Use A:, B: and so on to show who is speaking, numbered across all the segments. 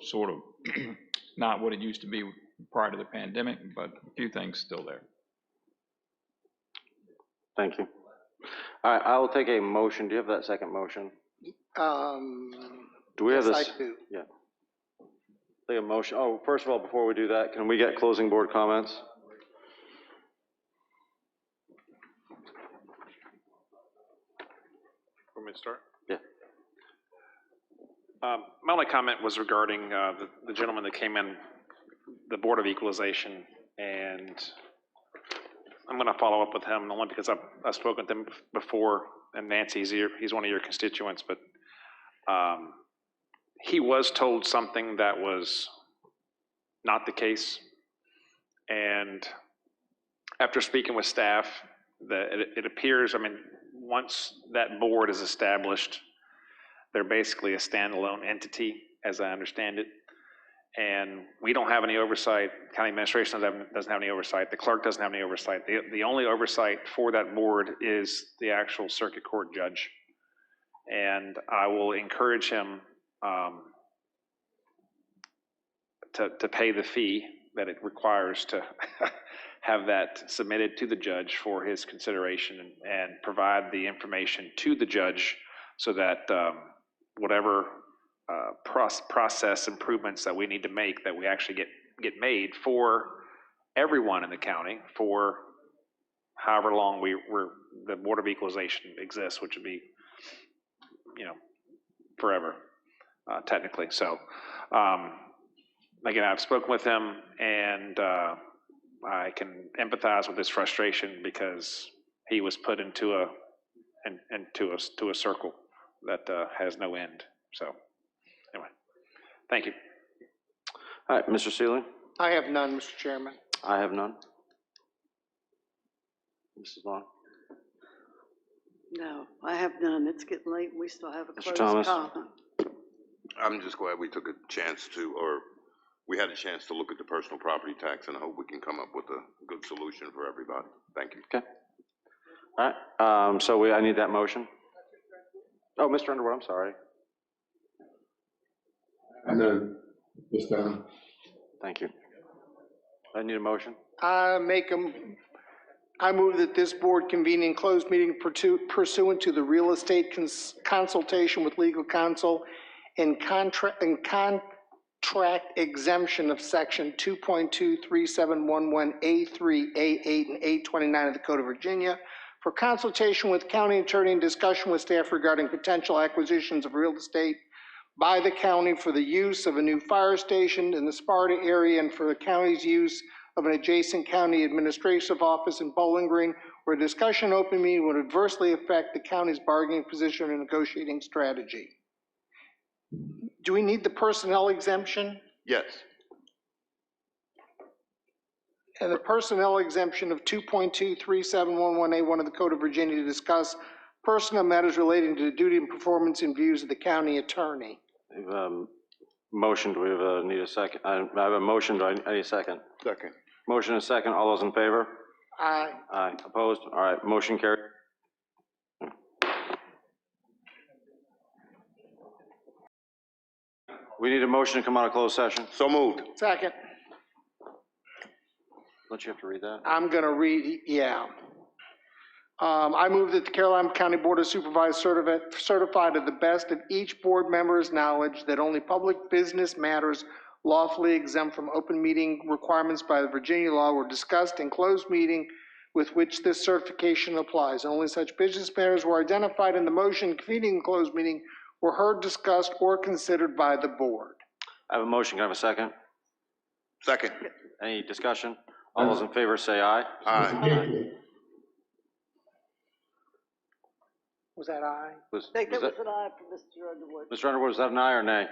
A: sort of not what it used to be prior to the pandemic, but a few things still there.
B: Thank you. All right, I will take a motion. Do you have that second motion?
C: Um,
B: Do we have
C: yes,
B: this?
C: I do.
B: Take a motion. Oh, first of all, before we do that, can we get closing board comments?
D: Want me to start?
B: Yeah.
D: Um, My only comment was regarding uh, the- the gentleman that came in, the Board of Equalization, and I'm going to follow up with him, only because I've I've spoken with him before, and Nancy's here, he's one of your constituents, but um, he was told something that was not the case. And after speaking with staff, that it, it appears, I mean, once that board is established, they're basically a standalone entity, as I understand it. And we don't have any oversight, county administration doesn't have- doesn't have any oversight, the clerk doesn't have any oversight. The, the only oversight for that board is the actual circuit court judge. And I will encourage him, um, to, to pay the fee that it requires to have that submitted to the judge for his consideration and, and provide the information to the judge so that um, whatever uh, proc- process improvements that we need to make, that we actually get, get made for everyone in the county for however long we, we're, the Board of Equalization exists, which would be, you know, forever, uh, technically. So, um, again, I've spoken with him and, uh, I can empathize with his frustration because he was put into a, in- into a, to a circle that uh, has no end. So, anyway, thank you.
B: All right, Mr. Seeley?
C: I have none, Mr. Chairman.
B: I have none. Mrs. Long?
E: No, I have none. It's getting late. We still have a
B: Mr.
E: closed
B: Thomas?
E: comment.
F: I'm just glad we took a chance to, or we had a chance to look at the personal property tax, and I hope we can come up with a good solution for everybody. Thank you.
B: All right, um, so we, I need that motion. Oh, Mr. Underwood, I'm sorry.
G: I know, this time.
B: Thank you. I need a motion.
C: I make 'em- I move that this board convene in closed meeting pursu- pursuant to the real estate cons- consultation with legal counsel and contract, and contract exemption of section 2.23711A3, A8, and A29 of the Code of Virginia for consultation with county attorney and discussion with staff regarding potential acquisitions of real estate by the county for the use of a new fire station in the Sparta area and for the county's use of an adjacent county administrative office in Bowling Green, where discussion open meeting would adversely affect the county's bargaining position and negotiating strategy. Do we need the personnel exemption?
F: Yes,
C: And the personnel exemption of 2.23711A1 of the Code of Virginia to discuss personnel matters relating to the duty and performance and views of the county attorney.
B: Um, Motion, do we have a, need a second? I I have a motion, do I I need a second?
F: second.
B: Motion and second, all those in favor?
C: Aye.
B: Aye, opposed? All right, motion carried. We need a motion to come out of closed session.
F: So moved.
C: Second,
B: Don't you have to read that?
C: I'm going to read, yeah. Um, I move that the Caroline County Board of Supervisors certify- certify to the best of each board member's knowledge that only public business matters lawfully exempt from open meeting requirements by the Virginia law were discussed in closed meeting with which this certification applies. Only such business matters were identified in the motion convening the closed meeting were heard, discussed, or considered by the board.
B: I have a motion, can I have a second?
F: Second.
B: Any discussion? All those in favor say aye.
F: Aye.
C: Was that aye?
B: Was-
E: I think
B: was
E: that was
B: that-
E: an eye for Mr. Underwood.
B: Mr. Underwood, was that an aye or nay?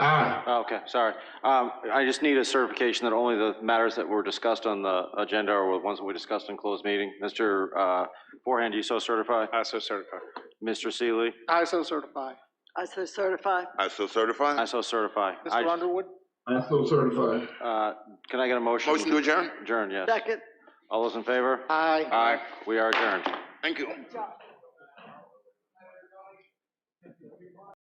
G: Aye.
B: Oh, Okay, sorry. Um, I just need a certification that only the matters that were discussed on the agenda are the ones that we discussed in closed meeting. Mr. uh, Forehand, do you so certify?
D: I so certify.
B: Mr. Seeley?
C: I so certify.
E: I so certify.
F: I so
B: I
F: certify.
B: so certify. I-
C: Mr. Underwood?
G: I so certified.
B: uh, Can I get a motion?
F: Motion to adjourn?
B: Adjourn, yes.
E: Second.
B: All those in favor?
C: Aye.
B: We are adjourned.
F: Thank you.
E: Good job.